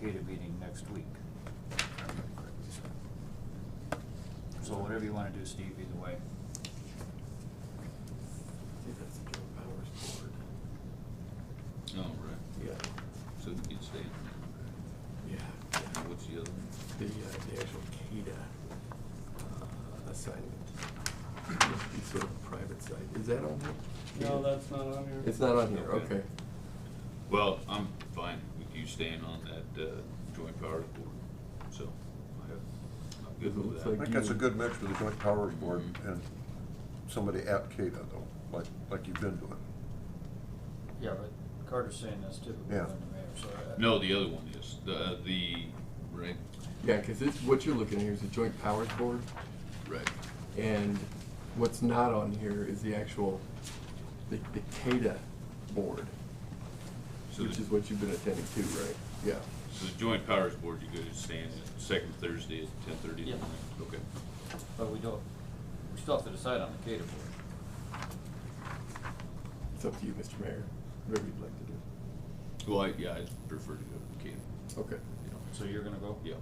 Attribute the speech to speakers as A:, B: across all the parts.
A: CADA meeting next week. if I remember correctly, so. So whatever you wanna do, Steve, either way.
B: think that's the Joe Powers board.
C: Oh, right,
B: Yeah,
C: so you could stay.
B: yeah, yeah.
C: And what's the other one?
B: The, uh, the actual CADA uh, assignment, must be sort of private side, is that on here?
D: No, that's not on here.
B: It's not on here,
C: Okay.
B: okay.
C: Well, I'm fine with you staying on that, uh, joint powers board, so I have, I'm
B: Does it
C: good with
B: look
C: that.
E: I think that's a good mix with the joint powers board and somebody at CADA though, like, like you've been doing.
A: Yeah, but Carter's saying that's typical
E: Yeah.
A: of the mayor, so. uh, I-
C: No, the other one is, the, uh, the, right,
B: Yeah, cause it's, what you're looking at here is the joint powers board,
C: right,
B: and what's not on here is the actual, the, the CADA board,
C: so
B: which
C: the,
B: is what you've been attending to, right? Yeah,
C: so the joint powers board, you go to stand the second Thursday at ten thirty in
A: Yeah.
C: the morning? Okay,
A: But we don't, we still have to decide on the CADA board.
B: it's up to you, Mr. Mayor, whatever you'd like to do.
C: well, I, yeah, I prefer to go to Canada,
B: Okay.
C: you know,
A: So you're gonna go?
C: yeah,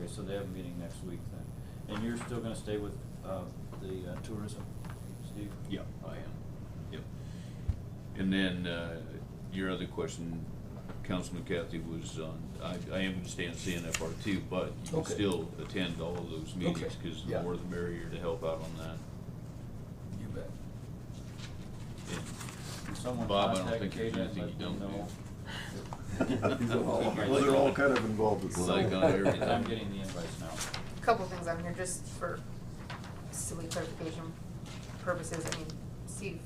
A: Okay, so they have a meeting next week then. And you're still gonna stay with, uh, the uh, tourism, Steve?
C: yeah, I am, yep. And then, uh, your other question, Councilman Kathy, was on, I, I am gonna stay on CNFR too, but you can
B: Okay.
C: still attend all of those meetings,
B: Okay,
C: cause the
B: yeah.
C: more the merrier to help out on that.
A: You bet.
C: And
A: Can someone
C: Bob, I don't
A: contact
C: think there's
A: Kata and
C: anything
A: let them
C: you don't
A: know?
E: Well, they're all kind of involved with.
C: It's like on every-
A: Because I'm getting the invites now.
F: couple things on here, just for silly clarification purposes, I mean, Steve,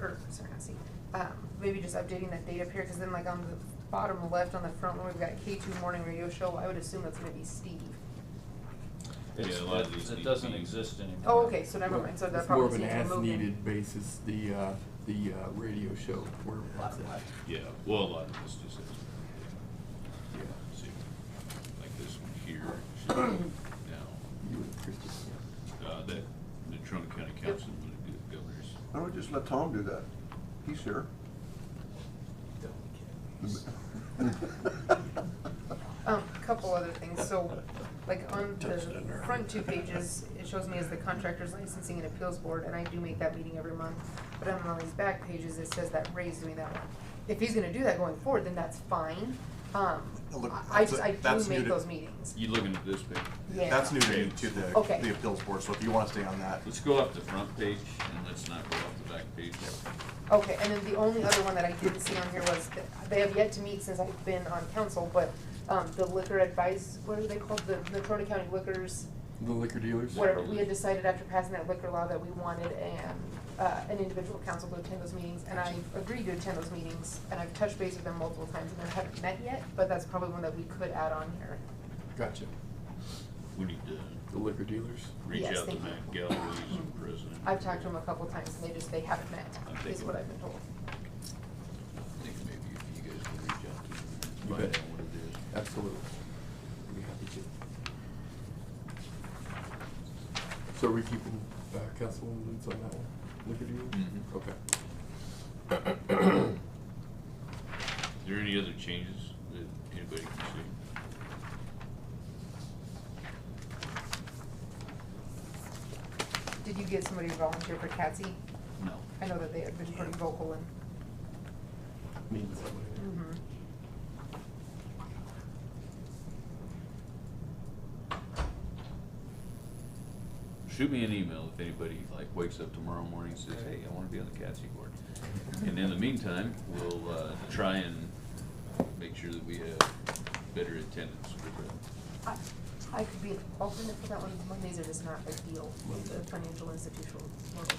F: or, sorry, not Steve, um, maybe just updating that date up here, cause then like on the bottom left on the front one, we've got K two morning radio show, I would assume that's gonna be Steve.
A: It's-
C: Yeah, a lot of these
A: It
C: need
A: doesn't
C: to be-
A: exist anymore.
F: Oh, okay, so never mind, so that
B: It's more
F: probably
B: of an
F: seems to move in.
B: as-needed basis, the, uh, the, uh, radio show, where it's at.
C: Yeah, well, a lot of this just is,
B: Yeah,
C: let's see, like this one here, should be now,
B: you and Christie, yeah.
C: uh, that, the Trumbull County Council, of the governors.
E: Why don't we just let Tom do that? He's here.
F: Um, couple other things, so, like, on the front two pages, it shows me as the contractor's licensing and appeals board, and I do make that meeting every month. But on all these back pages, it says that Ray's doing that one. If he's gonna do that going forward, then that's fine, um,
G: Look,
F: I
G: that's
F: just,
G: a-
F: I do
G: that's new
F: make
G: to-
F: those meetings.
C: You looking at this page?
F: Yeah.
G: That's new to you, to the,
F: Okay.
G: the appeals board, so if you wanna stay on that,
C: Let's go off the front page and let's not go off the back page.
F: Okay, and then the only other one that I didn't see on here was, that they have yet to meet since I've been on council, but, um, the liquor advice, what are they called, the Natrona County Liquors
B: The liquor dealers?
F: whatever, we had decided after passing that liquor law that we wanted an, uh, an individual council to attend those meetings, and I agreed to attend those meetings, and I've touched base with them multiple times, and they haven't met yet, but that's probably one that we could add on here.
B: Gotcha.
C: We need to
B: The liquor dealers?
C: reach
F: Yes,
C: out to
F: thank you.
C: Matt Galloway's president.
F: I've talked to them a couple times, and they just, they haven't met,
C: I'm
F: is
C: taking-
F: what I've been told.
C: I think maybe if you guys can reach out to him, and
B: You
C: find
B: bet.
C: out what it
B: Absolutely. We'd be happy to. So are we keeping, uh, Councilwoman Woods on that one? Liquor dealers?
C: Mhm.
B: Okay.
C: is. Is there any other changes that anybody can see?
F: Did you get somebody to volunteer for CATSI?
C: No.
F: I know that they have been pretty vocal and,
B: Needs somebody.
F: mhm.
C: Shoot me an email if anybody like wakes up tomorrow morning and says, hey, I wanna be on the CATSI board. And in the meantime, we'll, uh, try and make sure that we have better attendance for the,
F: I, I could be an alternate for that one, Mondays are just not a deal with the financial institutional world.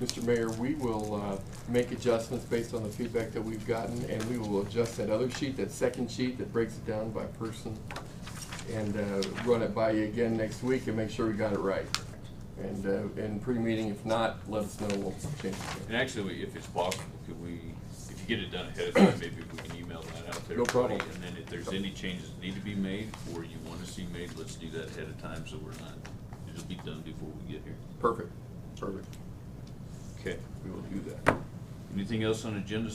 B: Mr. Mayor, we will uh, make adjustments based on the feedback that we've gotten, and we will adjust that other sheet, that second sheet that breaks it down by person, and uh, run it by you again next week and make sure we got it right. And, uh, and pre-meeting, if not, let us know, we'll change it.
C: and actually, if it's possible, could we, if you get it done ahead of time, maybe we can email that out there.
B: No problem.
C: And then if there's any changes that need to be made or you wanna see made, let's do that ahead of time so we're not, it'll be done before we get here.
B: Perfect, perfect.
C: Okay, we will do that. Anything else on agenda